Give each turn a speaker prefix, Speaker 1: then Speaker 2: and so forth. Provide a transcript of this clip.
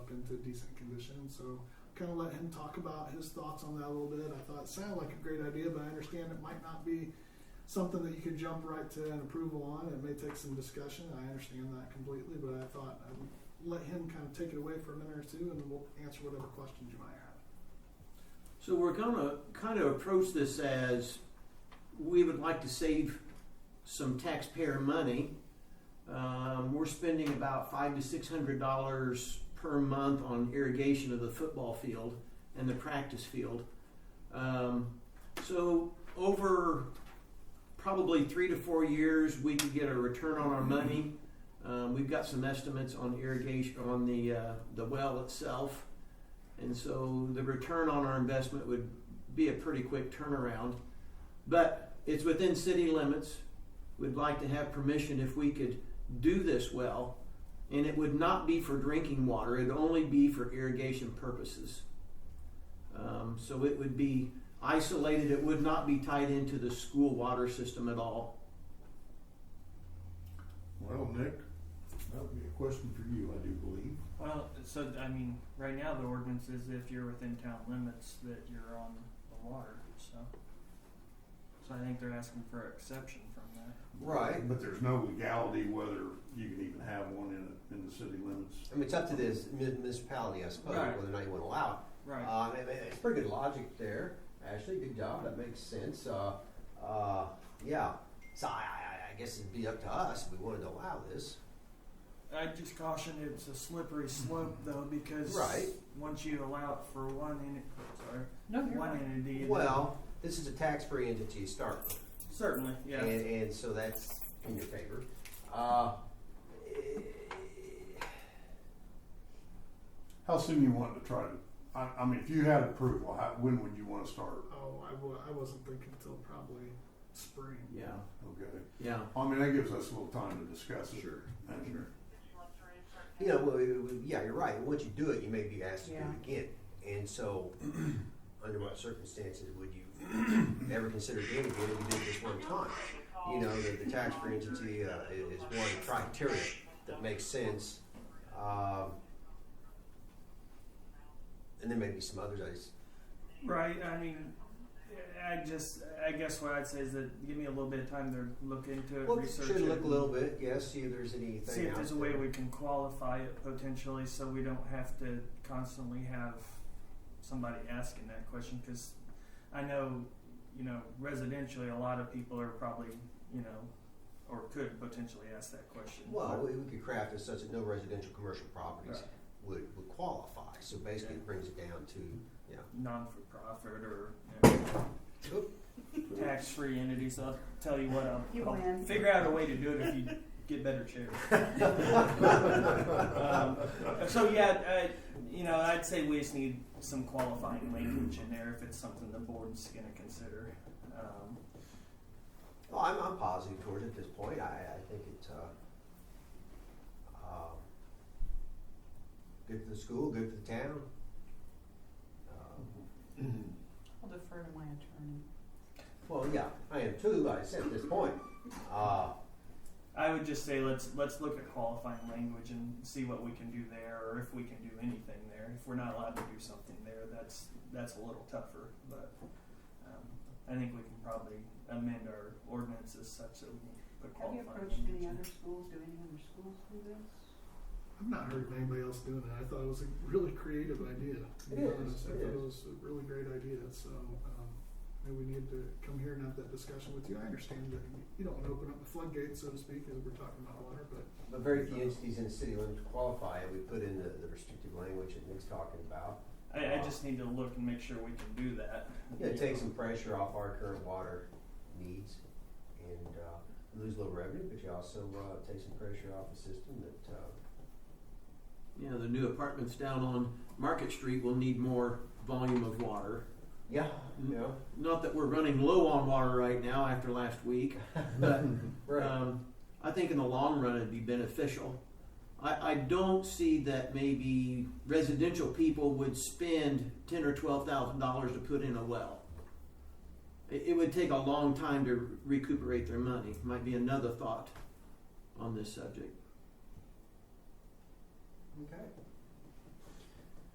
Speaker 1: into decent condition. So kind of let him talk about his thoughts on that a little bit. I thought it sounded like a great idea, but I understand it might not be something that you could jump right to an approval on. It may take some discussion. I understand that completely, but I thought I'd let him kind of take it away for a minute or two, and we'll answer whatever questions you might have.
Speaker 2: So we're going to kind of approach this as we would like to save some taxpayer money. Um, we're spending about five to six hundred dollars per month on irrigation of the football field and the practice field. Um, so over probably three to four years, we could get a return on our money. Um, we've got some estimates on irrigation on the uh, the well itself, and so the return on our investment would be a pretty quick turnaround. But it's within city limits. We'd like to have permission if we could do this well, and it would not be for drinking water. It'd only be for irrigation purposes. Um, so it would be isolated. It would not be tied into the school water system at all.
Speaker 3: Well, Nick, that would be a question for you, I do believe.
Speaker 4: Well, so I mean, right now the ordinance is if you're within town limits that you're on the water. So, so I think they're asking for an exception from that.
Speaker 3: Right. But there's no legality whether you can even have one in, in the city limits.
Speaker 5: I mean, it's up to this mu- municipality, I suppose,
Speaker 4: Right.
Speaker 5: whether or not you want to allow it.
Speaker 4: Right.
Speaker 5: Um, it- it's pretty good logic there, Ashley. Good job. That makes sense. Uh, uh, yeah. So I, I, I guess it'd be up to us if we wanted to allow this.
Speaker 4: I just caution it's a slippery slope though because
Speaker 5: Mm-hmm. Right.
Speaker 4: once you allow it for one entity, sorry,
Speaker 6: No, you're
Speaker 4: one
Speaker 6: right.
Speaker 4: entity, then-
Speaker 5: Well, this is a tax-free entity to start with.
Speaker 4: certainly, yeah.
Speaker 5: And, and so that's in your favor. Uh,
Speaker 3: How soon you want to try to, I, I mean, if you had approval, how, when would you want to start?
Speaker 1: Oh, I w- I wasn't thinking until probably spring.
Speaker 2: Yeah,
Speaker 3: Okay.
Speaker 2: yeah.
Speaker 3: I mean, that gives us a little time to discuss it. Sure. Sure.
Speaker 5: you know, well, it- it- yeah, you're right. Once you do it, you may be asked to do
Speaker 6: Yeah.
Speaker 5: it again. And so, under what circumstances would you ever consider doing it again if you did it just one time? You know, the, the tax free entity uh, i- is one criteria that makes sense. Um, and there may be some others. I just,
Speaker 4: Right. I mean, I just, I guess what I'd say is that give me a little bit of time to look into it,
Speaker 5: well,
Speaker 4: research
Speaker 5: should
Speaker 4: it,
Speaker 5: look a little bit, yes, see if there's anything.
Speaker 4: see if
Speaker 5: out
Speaker 4: there's a way
Speaker 5: there.
Speaker 4: we can qualify it potentially, so we don't have to constantly have somebody asking that question. Because I know, you know, residentially, a lot of people are probably, you know, or could potentially ask that question.
Speaker 5: Well, we, we could craft it such that no residential commercial properties
Speaker 4: Right.
Speaker 5: would, would qualify. So basically, it brings it down to you know,
Speaker 4: non-for-profit or you
Speaker 5: Oop.
Speaker 4: know, tax-free entities. I'll tell you what, I'll,
Speaker 6: You
Speaker 4: I'll
Speaker 6: win.
Speaker 4: figure out a way to do it if you get better chairs. um, so yeah, I, you know, I'd say we just need some qualifying language in there if it's something the board's going to consider. Um,
Speaker 5: Well, I'm, I'm positive towards it at this point. I, I think it's uh, um, good for the school, good for the town. Um,
Speaker 6: I'll defer to my attorney.
Speaker 5: well, yeah, I am too. But I said at this point, uh,
Speaker 4: I would just say let's let's look at qualifying language and see what we can do there, or if we can do anything there. If we're not allowed to do something there, that's that's a little tougher. But um, I think we can probably amend our ordinances such that we can put
Speaker 6: Have you
Speaker 4: qualifying.
Speaker 6: approached any
Speaker 4: language
Speaker 6: other schools? Do any other schools do this?
Speaker 1: I've not heard of anybody else doing it. I thought it was a really creative idea. To be
Speaker 5: It
Speaker 1: honest,
Speaker 5: is,
Speaker 1: I
Speaker 5: it
Speaker 1: thought
Speaker 5: is.
Speaker 1: it was a really great idea. So um, maybe we need to come here and have that discussion with you. I understand that you don't want to open up the floodgates, so to speak, as we're talking about water, but
Speaker 5: but very few entities in the city limits qualify, and we put in the, the restrictive language that Nick's talking about.
Speaker 4: in it. I, I just need to look and make sure we can do that.
Speaker 5: Yeah, take some pressure off our current water needs and uh, lose a little revenue, but you also uh, take some pressure off the system that, uh,
Speaker 2: Yeah, the new apartments down on Market Street will need more volume of water.
Speaker 5: yeah, you know,
Speaker 2: Mm. Not that we're running low on water right now after last week, but
Speaker 5: right.
Speaker 2: um, I think in the long run it'd be beneficial. I, I don't see that maybe residential people would spend ten or twelve thousand dollars to put in a well. It, it would take a long time to recuperate their money. Might be another thought on this subject.
Speaker 5: Okay.